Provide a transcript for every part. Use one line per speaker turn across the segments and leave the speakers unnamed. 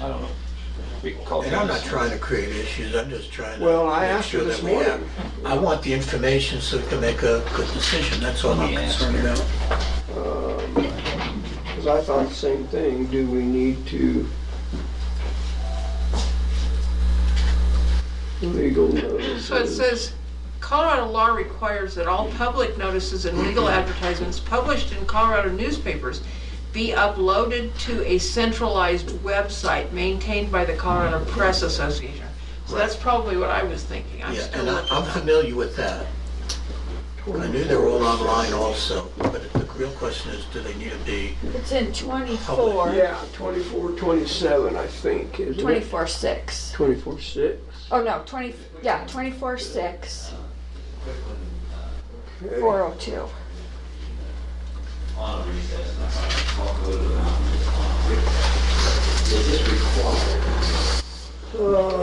I don't know. We can call
And I'm not
Dennis.
trying to create issues, I'm just trying to.
Well, I
make
asked her
sure
this
that we have-
morning.
I want the information so we can make a good decision, that's all I'm
Yeah.
concerned about.
Because I thought the same thing, do we need to legal
So it
notices?
says, Colorado law requires that all public notices and legal advertisements published in Colorado newspapers be uploaded to a centralized website maintained by the Colorado Press Association. So that's probably what I was thinking. I'm
Yeah,
still
and I-
looking.
I'm familiar with that. I knew they were all online also, but the real question is, do they need to be,
It's in 24,
Yeah, twenty-four, twenty-seven, I think, isn't it?
24 6.
Twenty-four, six.
Oh, no, 20, yeah, 24 6, 402.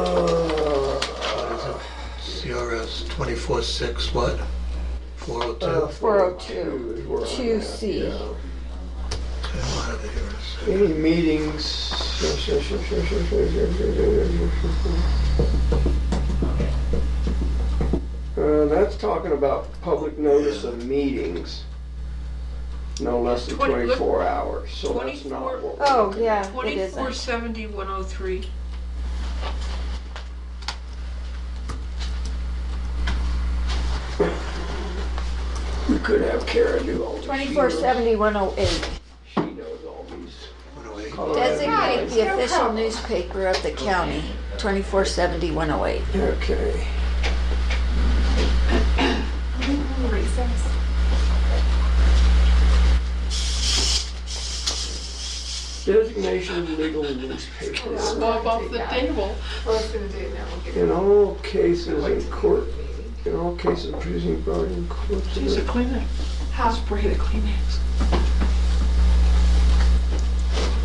Uh,
what is it? CRS 24/6 what? 402?
uh,
402,
is where I'm
two
at,
C.
yeah.
Okay, I'll have it here in a second.
Any meetings? Uh, that's talking about public notice of meetings, no less than
Twenty- look-
twenty-four hours, so that's not what. we're
Oh,
looking at.
yeah, it
Twenty-four
isn't.
seventy one oh three.
We could have Kara do all this. She
24
knows-
70 108.
She knows all these.
108.
Colorado
Designate
guys.
the official newspaper of the county, 24 70 108.
Okay, designation of legal newspaper.
Bob off the table.
Well, I was gonna do it now. We'll get
In all cases in court,
it.
in all cases producing brought in court. uh,
She's a cleaner.
How's
Spray the Kleenex.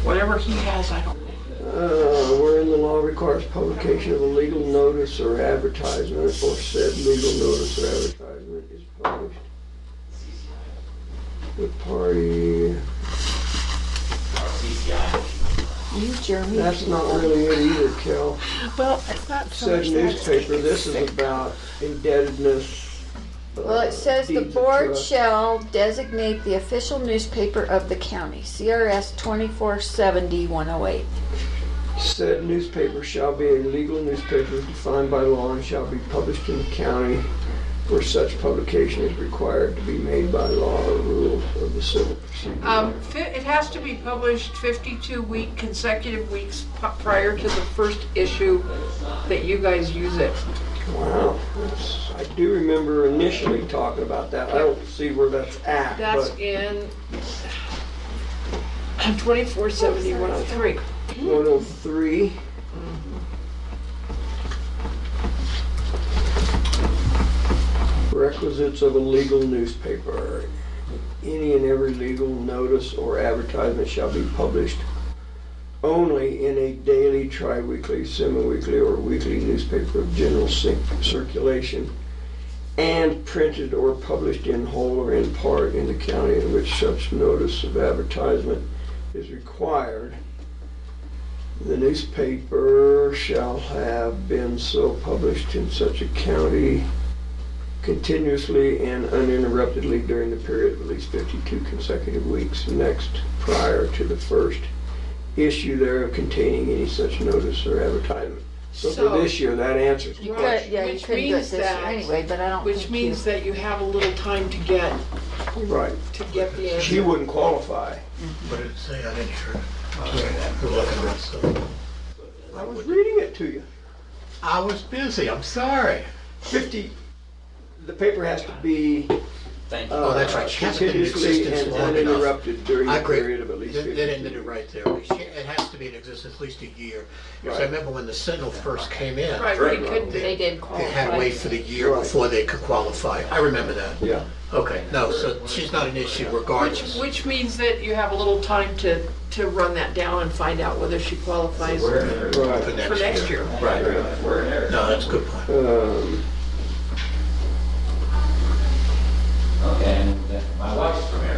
Whatever he has, I don't.
Uh, wherein the law requires publication of a legal notice or advertisement, or said legal notice or advertisement is published. The party,
You, Jeremy.
that's not really it either, Cal.
Well, it's not so
Said
much that.
newspaper, this is about indebtedness. uh,
Well, it says the
deeds of
board
trust.
shall designate the official newspaper of the county, CRS 24 70 108.
Said newspaper shall be a legal newspaper as defined by law and shall be published in the county where such publication is required to be made by law or rules of the civil procedure.
Um, fi- it has to be published 52 week consecutive weeks p- prior to the first issue that you guys use it.
Wow, that's- I do remember initially talking about that. I don't see where that's at,
That's
but
in 247103.
103. Requisites of a legal newspaper. Any and every legal notice or advertisement shall be published only in a daily, tri-weekly, semi-weekly, or weekly newspaper of general cir- circulation and printed or published in whole or in part in the county in which such notice of advertisement is required. The newspaper shall have been so published in such a county continuously and uninterruptedly during the period of at least 52 consecutive weeks next prior to the first issue thereof containing any such notice or advertisement. So for
So-
this year, that answers the
You
question.
Which-
Yeah, you
which
couldn't do it
means
this year
that-
anyway, but I don't
Which
think you.
means that you have a little time to get,
Right.
to get the
She
answer.
wouldn't qualify.
What did it say? I didn't hear it. We're looking at it, so-
I was reading it to you.
I was busy, I'm sorry.
50, the paper has to be
Thank you.
Oh, that's right.
uh,
She hasn't been in
continuously
existence
and
long enough.
uninterrupted during
I
a
agree.
period of at least
That that ended
52.
it right there. It has to be in existence at least a year. Because I
Right.
remember when the Sentinel first came in,
Right,
they
we couldn't,
They-
they did qualify.
had to wait for the year
Right.
before they could qualify. I remember that.
Yeah.
Okay, no, so she's not an issue
Which,
regardless.
which means that you have a little time to, to run that down and find out whether she qualifies for
For
Right.
next year.
Right. No, that's a good point.
Um,
Okay, and my wife's from
uh,